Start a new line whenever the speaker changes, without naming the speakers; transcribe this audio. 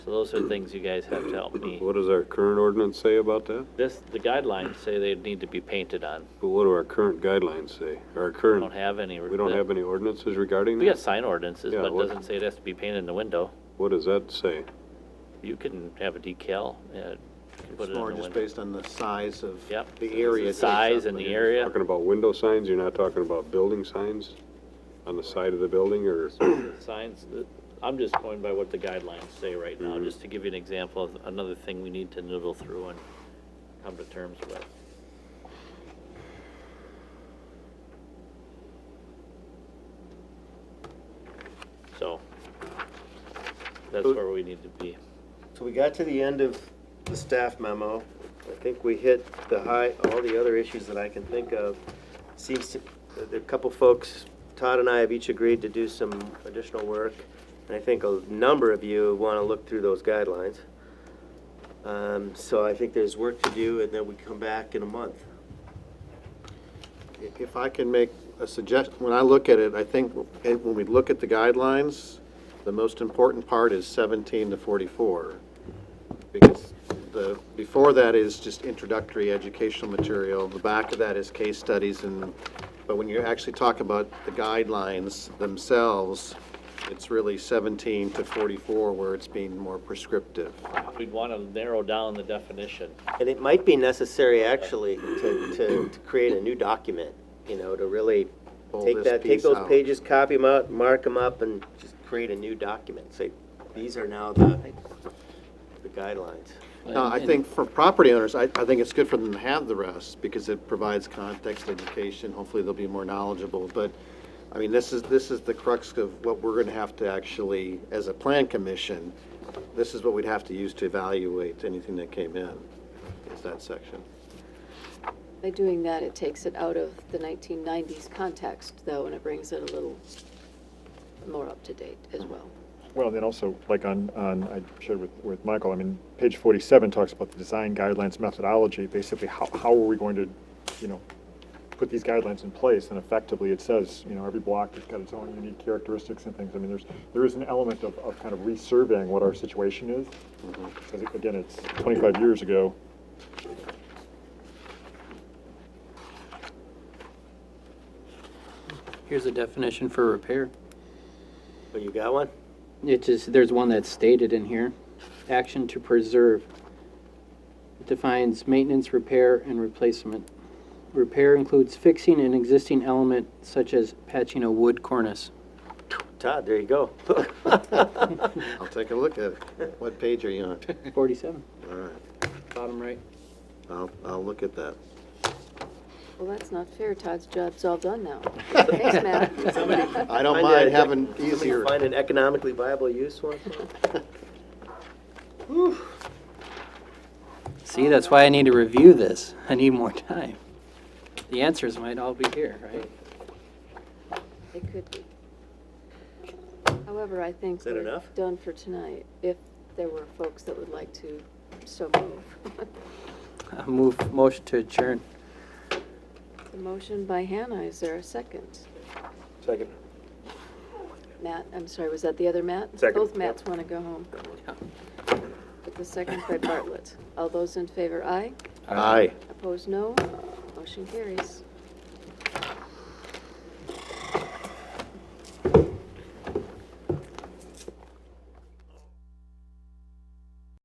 So those are things you guys have to help me.
What does our current ordinance say about that?
This, the guidelines say they need to be painted on.
But what do our current guidelines say? Our
We
current,
don't have any.
we don't have any ordinances regarding
We got
that?
sign ordinances,
Yeah,
but it
what-
doesn't say it has to be painted in the window.
What does that say?
You can have a decal, uh, put
It's
it in the
more
window.
just based on the size of
Yep.
the area. it takes
Size
up,
and the
but
area.
Talking about window signs, you're not talking about building signs on the side of the building or?
signs, that- I'm just going by what the guidelines say right now, just to give you an example of another thing we need to noodle through and come to terms with. So, that's where we need to be.
So we got to the end of the staff memo. I think we hit the high, all the other issues that I can think of. Seems to, there are a couple folks, Todd and I have each agreed to do some additional work. And I think a number of you want to look through those guidelines. Um, so I think there's work to do and then we come back in a month.
If I can make a suggestion, when I look at it, I think, eh, when we look at the guidelines, the most important part is 17 to 44. Because the, before that is just introductory educational material, the back of that is case studies and, but when you actually talk about the guidelines themselves, it's really 17 to 44 where it's being more prescriptive.
We'd want to narrow down the definition.
And it might be necessary, actually, to, to, to create a new document, you know, to really
Pull
take
this
that, take
piece
those
out.
pages, copy them out, mark them up, and just create a new document. Say, these are now the, the guidelines.
No, I think for property owners, I, I think it's good for them to have the rest, because it provides context, education, hopefully they'll be more knowledgeable, but, I mean, this is, this is the crux of what we're gonna have to actually, as a plan commission, this is what we'd have to use to evaluate anything that came in, is that section.
By doing that, it takes it out of the 1990s context, though, and it brings it a little more up to date as well.
Well, then also, like on, on, I shared with, with Michael, I mean, page forty-seven talks about the design guidelines methodology, basically, how, how are we going to, you know, put these guidelines in place, and effectively, it says, you know, every block has got its own unique characteristics and things, I mean, there's, there is an element of, of kind of resurveying what our situation is. Because again, it's twenty-five years ago,
Here's a definition for repair.
Oh, you got one?
It just, there's one that's stated in here. Action to preserve. It defines maintenance, repair, and replacement. Repair includes fixing an existing element such as patching a wood cornice.
Todd, there you go.
I'll take a look at it. What page are you on?
Forty-seven,
All right,
bottom right.
I'll, I'll look at that.
Well, that's not fair. Todd's job's all done now. Thanks, Matt.
I don't
Find a-
mind having
somebody
easier.
Find an economically viable use one?
See, that's why I need to review this. I need more time. The answers might all be here, right?
It could be. However, I think
Is that
we're
enough?
done for tonight, if there were folks that would like to so move.
I Move, motion to adjourn.
The motion by Hannah, is there a second?
Second.
Matt, I'm sorry, was that the other Matt?
Second,
Both
yep.
Matts want to go home. With the second by Bartlett. All those in favor, aye.
Aye.
Opposed, no. Motion carries.